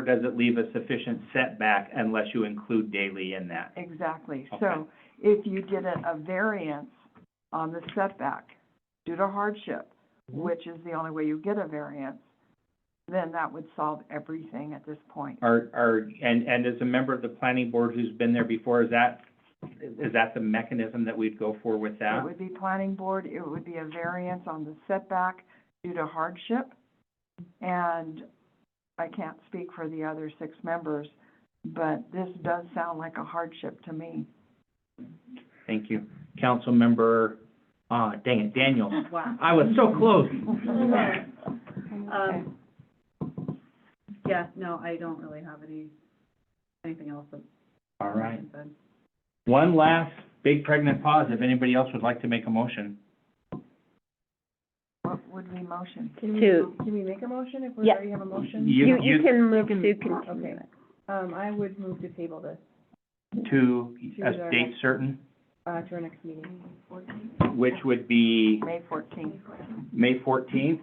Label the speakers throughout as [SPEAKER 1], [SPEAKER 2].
[SPEAKER 1] or does it leave a sufficient setback unless you include daily in that?
[SPEAKER 2] Exactly.
[SPEAKER 1] Okay.
[SPEAKER 2] So if you did a, a variance on the setback due to hardship,
[SPEAKER 1] Mm-hmm.
[SPEAKER 2] which is the only way you get a variance, then that would solve everything at this point.
[SPEAKER 1] Are, are, and, and as a member of the planning board who's been there before, is that, is that the mechanism that we'd go for with that?
[SPEAKER 2] It would be planning board, it would be a variance on the setback due to hardship. And I can't speak for the other six members, but this does sound like a hardship to me.
[SPEAKER 1] Thank you. Councilmember, uh, dang it, Daniel.
[SPEAKER 3] Wow.
[SPEAKER 1] I was so close.
[SPEAKER 2] Okay.
[SPEAKER 3] Um, yeah, no, I don't really have any, anything else that.
[SPEAKER 1] All right.
[SPEAKER 3] I've said.
[SPEAKER 1] One last big pregnant pause, if anybody else would like to make a motion.
[SPEAKER 2] What would we motion?
[SPEAKER 4] Can we,
[SPEAKER 5] Can we make a motion if we
[SPEAKER 4] Yeah.
[SPEAKER 5] already have a motion?
[SPEAKER 1] You,
[SPEAKER 4] you,
[SPEAKER 1] you,
[SPEAKER 4] you can move to
[SPEAKER 5] can-
[SPEAKER 4] continue
[SPEAKER 5] okay.
[SPEAKER 4] it.
[SPEAKER 5] Um, I would move to table this,
[SPEAKER 1] to a
[SPEAKER 5] To our
[SPEAKER 1] date
[SPEAKER 5] next-
[SPEAKER 1] certain,
[SPEAKER 5] uh, to our next meeting.
[SPEAKER 1] which would be
[SPEAKER 2] May fourteenth.
[SPEAKER 1] May fourteenth.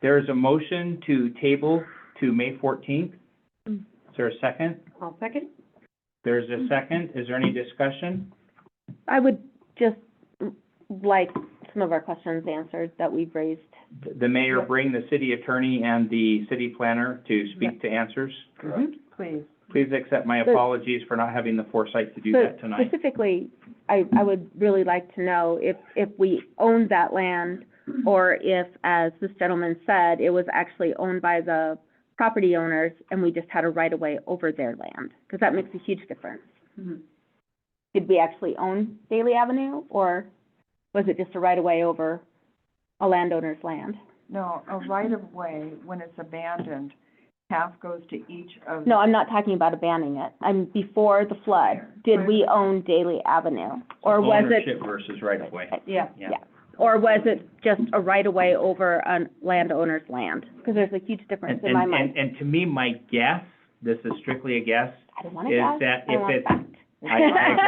[SPEAKER 1] There is a motion to table to May fourteenth. Is
[SPEAKER 4] Mm.
[SPEAKER 1] there a second?
[SPEAKER 5] I'll second.
[SPEAKER 1] There's a second. Is there any discussion?
[SPEAKER 4] I would just mm, like some of our questions answered that we've raised.
[SPEAKER 1] Th- The mayor bring the city attorney and the city planner to speak to answers.
[SPEAKER 2] Please.
[SPEAKER 1] Please accept my
[SPEAKER 4] But-
[SPEAKER 1] apologies for not having the foresight to do
[SPEAKER 4] So
[SPEAKER 1] that tonight.
[SPEAKER 4] Specifically, I, I would really like to know if, if we owned that land
[SPEAKER 5] Mm-hmm.
[SPEAKER 4] or if, as this gentleman said, it was actually owned by the property owners and we just had a right-of-way over their land, because that makes a huge difference.
[SPEAKER 5] Mm-hmm.
[SPEAKER 3] Mhm.
[SPEAKER 4] Did we actually own Daly Avenue or was it just a right-of-way over a landowner's land?
[SPEAKER 2] No, a right-of-way, when it's abandoned, half goes to each of.
[SPEAKER 4] No, I'm not talking about abandoning it. I'm before the flood. Did we own Daly Avenue? Or was it?
[SPEAKER 1] Ownership versus right of way.
[SPEAKER 4] Yeah,
[SPEAKER 1] Yeah.
[SPEAKER 4] yeah. Or was it just a right of way over a landowner's land? Because there's a huge difference
[SPEAKER 1] And,
[SPEAKER 4] in my
[SPEAKER 1] and,
[SPEAKER 4] mind.
[SPEAKER 1] and, and to me, my guess, this is strictly a guess,
[SPEAKER 4] I don't want to
[SPEAKER 1] is
[SPEAKER 4] guess.
[SPEAKER 1] that
[SPEAKER 4] I
[SPEAKER 1] if
[SPEAKER 4] want
[SPEAKER 1] it's-
[SPEAKER 4] fact.
[SPEAKER 1] I, I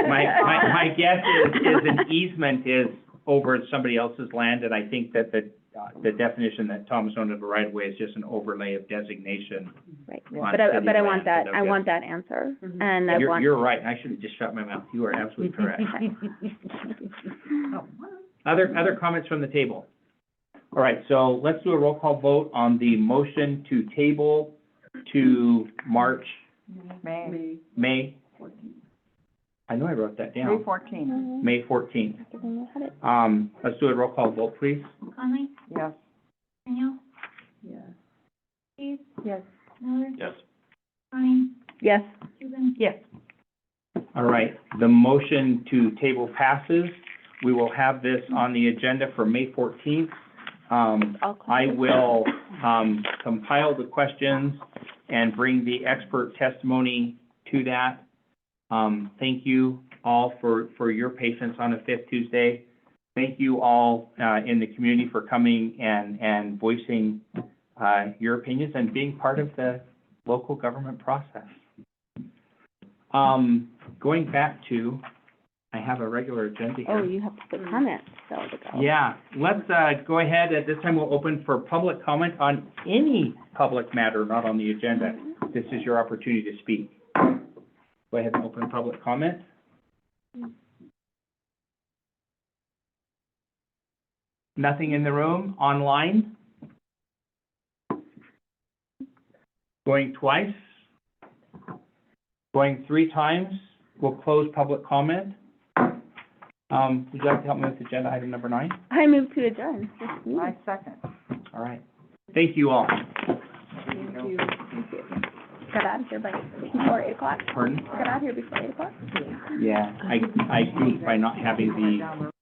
[SPEAKER 1] agree. My, my, my guess is, is an easement is over somebody else's land, and I think that the, uh, the definition that Thomas owned of a right of way is just an overlay of designation.
[SPEAKER 4] Right.
[SPEAKER 1] on
[SPEAKER 4] But I,
[SPEAKER 1] city
[SPEAKER 4] but I
[SPEAKER 1] land,
[SPEAKER 4] want that,
[SPEAKER 1] so
[SPEAKER 4] I
[SPEAKER 1] yes.
[SPEAKER 4] want that answer.
[SPEAKER 3] Mhm.
[SPEAKER 4] And I
[SPEAKER 1] Mm-hmm. You're,
[SPEAKER 4] want,
[SPEAKER 1] you're right, I should have just shut my mouth, you are absolutely correct.
[SPEAKER 3] Oh, what?
[SPEAKER 1] Other, other comments from the table? All right, so let's do a roll call vote on the motion to table to March,
[SPEAKER 2] May,
[SPEAKER 3] May
[SPEAKER 1] May,
[SPEAKER 3] fourteenth.
[SPEAKER 1] I know I wrote that
[SPEAKER 2] May
[SPEAKER 1] down,
[SPEAKER 2] fourteenth,
[SPEAKER 1] May fourteenth. Um, let's do a roll call vote, please.
[SPEAKER 6] Conley,
[SPEAKER 2] yes.
[SPEAKER 6] Daniel,
[SPEAKER 3] Yeah.
[SPEAKER 6] Keith,
[SPEAKER 5] Yes.
[SPEAKER 6] Miller,
[SPEAKER 1] Yes.
[SPEAKER 6] Connie,
[SPEAKER 4] Yes,
[SPEAKER 6] Cuban,
[SPEAKER 2] Yes.
[SPEAKER 1] All right, the motion to table passes. We will have this on the agenda for May fourteenth. Um,
[SPEAKER 4] all
[SPEAKER 1] I
[SPEAKER 4] questions.
[SPEAKER 1] will, um, compile the questions and bring the expert testimony to that. Um, thank you all for, for your patience on a fifth Tuesday. Thank you all, uh, in the community for coming and, and voicing, uh, your opinions and being part of the local government process. Um, going back to, I have a regular agenda here.
[SPEAKER 4] Oh, you have to put comments, so to go.
[SPEAKER 1] Yeah, let's, uh, go ahead, at this time, we'll open for public comment on any public matter not on the agenda. This is your opportunity to speak. Go ahead and open public comment. Nothing in the room, online? Going twice? Going three times? We'll close public comment. Um, would you like to help me with agenda item number nine?
[SPEAKER 4] I move to adjourn. this meeting.
[SPEAKER 2] I second.
[SPEAKER 1] All right. Thank you all.
[SPEAKER 4] Got out of here by, before eight o'clock.
[SPEAKER 1] Pardon?
[SPEAKER 4] Got out of here before eight o'clock.
[SPEAKER 1] Yeah, I, I think by not having the